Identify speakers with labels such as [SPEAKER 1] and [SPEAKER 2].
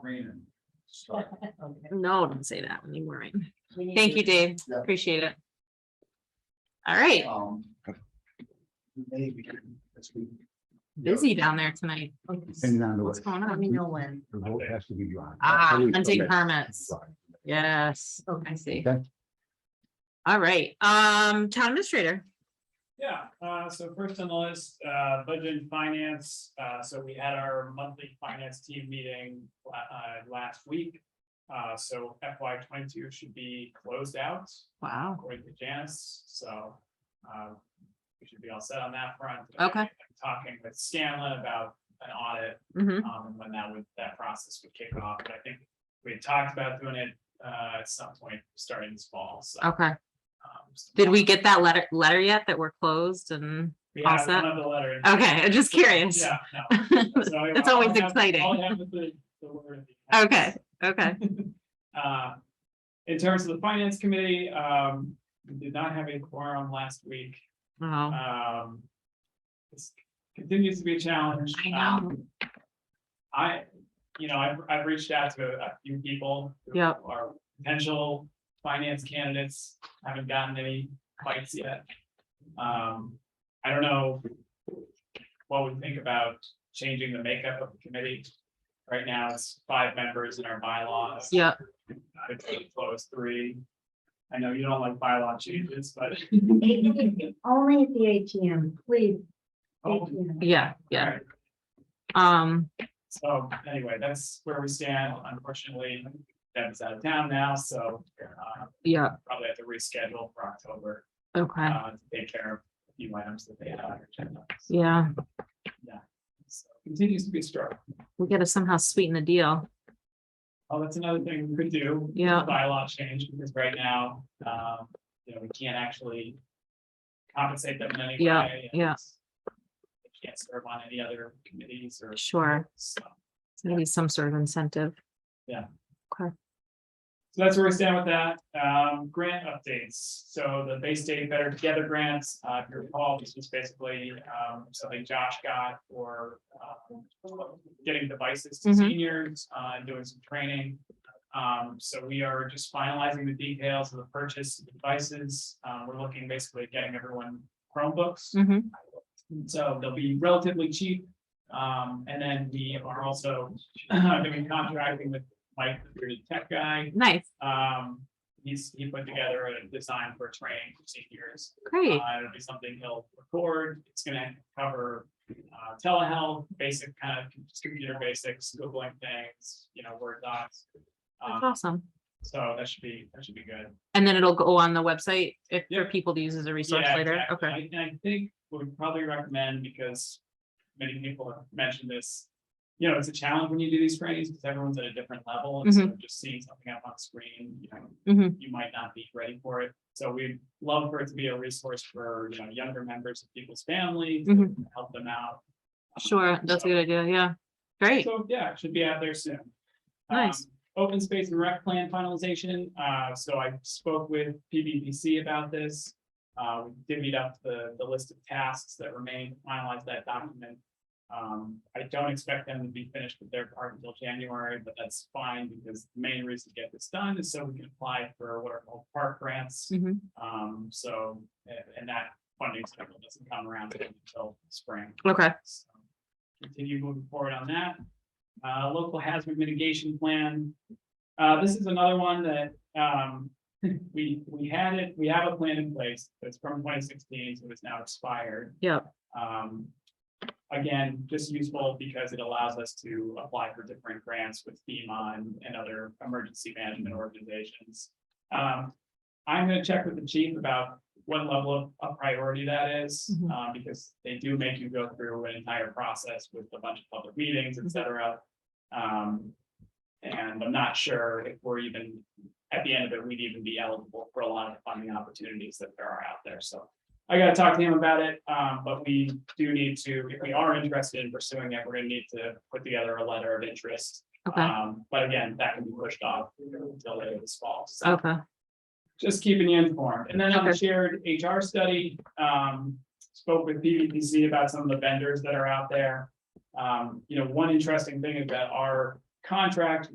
[SPEAKER 1] raining. So,
[SPEAKER 2] No, don't say that when you weren't.
[SPEAKER 3] We need
[SPEAKER 2] Thank
[SPEAKER 3] to-
[SPEAKER 2] you, Dave.
[SPEAKER 1] Yeah.
[SPEAKER 2] Appreciate it. All right,
[SPEAKER 1] um, Maybe. it's been-
[SPEAKER 2] busy down there tonight.
[SPEAKER 4] Depending on the
[SPEAKER 2] What's
[SPEAKER 4] way,
[SPEAKER 2] going
[SPEAKER 3] Let me know
[SPEAKER 2] on?
[SPEAKER 3] when.
[SPEAKER 4] the vote has to be drawn.
[SPEAKER 2] Ah,
[SPEAKER 4] Always
[SPEAKER 2] hunting
[SPEAKER 4] permit.
[SPEAKER 2] permits.
[SPEAKER 4] Right.
[SPEAKER 2] Yes, I see.
[SPEAKER 4] Okay.
[SPEAKER 2] All right, um, town administrator.
[SPEAKER 5] Yeah, uh, so first on the list, uh, budget and finance, uh, so we had our monthly finance team meeting, la- uh, last week. Uh, so FY twenty-two should be closed out
[SPEAKER 2] Wow.
[SPEAKER 5] according to Janice, so, uh, we should be all set on that front.
[SPEAKER 2] Okay.
[SPEAKER 5] Talking with Scanlon about an audit
[SPEAKER 2] hmm
[SPEAKER 5] um, and when that would, that process would kick off, but I think we had talked about doing it, uh, at some point, starting this fall, so.
[SPEAKER 2] Okay.
[SPEAKER 5] um, just-
[SPEAKER 2] Did we get that letter, letter yet that we're closed and,
[SPEAKER 5] We
[SPEAKER 2] all
[SPEAKER 5] have
[SPEAKER 2] set?
[SPEAKER 5] another letter. in-
[SPEAKER 2] okay, I'm just curious.
[SPEAKER 5] Yeah, no. So
[SPEAKER 2] That's
[SPEAKER 5] I'll
[SPEAKER 2] always
[SPEAKER 5] have-
[SPEAKER 2] exciting.
[SPEAKER 5] I'll have the- the word at the end.
[SPEAKER 2] Okay, okay.
[SPEAKER 5] Uh, In terms of the finance committee, um, we did not have a quorum last week.
[SPEAKER 2] Oh,
[SPEAKER 5] Um. This continues to be a challenge.
[SPEAKER 2] I know.
[SPEAKER 5] Um, I, you know, I've, I've reached out to a few people. who
[SPEAKER 2] Yep.
[SPEAKER 5] Are potential finance candidates, haven't gotten any bites yet. Um, I don't know. What we think about changing the makeup of the committee. Right now, it's five members in our bylaws.
[SPEAKER 2] yeah,
[SPEAKER 5] I think close three. I know you don't like bylaw changes, but.
[SPEAKER 3] Only at the ATM, please. ATM.
[SPEAKER 2] yeah, yeah. Um,
[SPEAKER 5] So anyway, that's where we stand. Unfortunately, Deb's out of town now, so uh,
[SPEAKER 2] yeah,
[SPEAKER 5] probably have to reschedule for October.
[SPEAKER 2] okay,
[SPEAKER 5] uh, to Take care of a few items that they had on their agenda.
[SPEAKER 2] yeah.
[SPEAKER 5] So, Continues to be strong.
[SPEAKER 2] We gotta somehow sweeten the deal.
[SPEAKER 5] Oh, that's another thing we could do. is
[SPEAKER 2] Yeah.
[SPEAKER 5] Bylaw change, because right now, um, you know, we can't actually compensate them in any way.
[SPEAKER 2] Yeah,
[SPEAKER 5] and
[SPEAKER 2] yeah.
[SPEAKER 5] They can't serve on any other committees or.
[SPEAKER 2] Sure,
[SPEAKER 5] So
[SPEAKER 2] maybe some sort of incentive.
[SPEAKER 5] So that's where we stand with that. Um, grant updates. So the Bay State Better Together grants, uh, if you recall, this was basically, um, something Josh got for, um, getting devices to
[SPEAKER 2] Mhm.
[SPEAKER 5] seniors, uh, and doing some training. Um, so we are just finalizing the details of the purchase of the devices. Um, we're looking basically at getting everyone Chromebooks.
[SPEAKER 2] hmm
[SPEAKER 5] So they'll be relatively cheap. Um, and then we are also doing contracting with Mike, the tech guy.
[SPEAKER 2] nice,
[SPEAKER 5] Um, he's, he put together a design for training for seniors. Uh,
[SPEAKER 2] great,
[SPEAKER 5] it'll be something he'll record. It's gonna cover, uh, telehealth, basic kind of computer basics, Googling things, you know, Word docs.
[SPEAKER 2] that's
[SPEAKER 5] Um,
[SPEAKER 2] awesome.
[SPEAKER 5] so that should be, that should be good.
[SPEAKER 2] And then it'll go on the website if for
[SPEAKER 5] Yeah.
[SPEAKER 2] people to use as a resource
[SPEAKER 5] Yeah,
[SPEAKER 2] later,
[SPEAKER 5] exactly.
[SPEAKER 2] okay,
[SPEAKER 5] I- And I think what we probably recommend, because many people have mentioned this, you know, it's a challenge when you do these trainings, because everyone's at a different level, and so
[SPEAKER 2] Mm-hmm.
[SPEAKER 5] just seeing something up on screen, you know,
[SPEAKER 2] Mhm.
[SPEAKER 5] you might not be ready for it. So we'd love for it to be a resource for, you know, younger members of people's families,
[SPEAKER 2] Mhm.
[SPEAKER 5] help them out. Um,
[SPEAKER 2] sure, that's a
[SPEAKER 5] So-
[SPEAKER 2] good idea, yeah. Great,
[SPEAKER 5] so, yeah, it should be out there soon.
[SPEAKER 2] Nice.
[SPEAKER 5] Um, Open space and rec plan finalization, uh, so I spoke with PBPC about this. Uh, we divvied up the, the list of tasks that remain, finalized that document. Um, I don't expect them to be finished with their part until January, but that's fine, because the main reason to get this done is so we can apply for what are called park grants.
[SPEAKER 2] hmm
[SPEAKER 5] Um, so, and- and that funding cycle doesn't come around until spring.
[SPEAKER 2] okay,
[SPEAKER 5] So, Continue moving forward on that. Uh, local hazard mitigation plan. Uh, this is another one that, um, we, we had it, we have a plan in place that's from twenty sixteen, so it's now expired.
[SPEAKER 2] Yep.
[SPEAKER 5] Um, again, just useful because it allows us to apply for different grants with FEMA and, and other emergency management organizations. Um, I'm gonna check with the chief about what level of, of priority that is,
[SPEAKER 2] Mhm.
[SPEAKER 5] um, because they do make you go through an entire process with a bunch of public meetings, et cetera. Um, and I'm not sure if we're even, at the end of it, we'd even be eligible for a lot of funding opportunities that there are out there, so. I gotta talk to him about it, um, but we do need to, if we are interested in pursuing it, we're gonna need to put together a letter of interest.
[SPEAKER 2] okay,
[SPEAKER 5] Um, but again, that can be pushed off until later this fall, so
[SPEAKER 2] okay,
[SPEAKER 5] just keeping you informed. And then on the
[SPEAKER 2] Okay.
[SPEAKER 5] shared HR study, um, spoke with PVPC about some of the vendors that are out there. Um, you know, one interesting thing is that our contract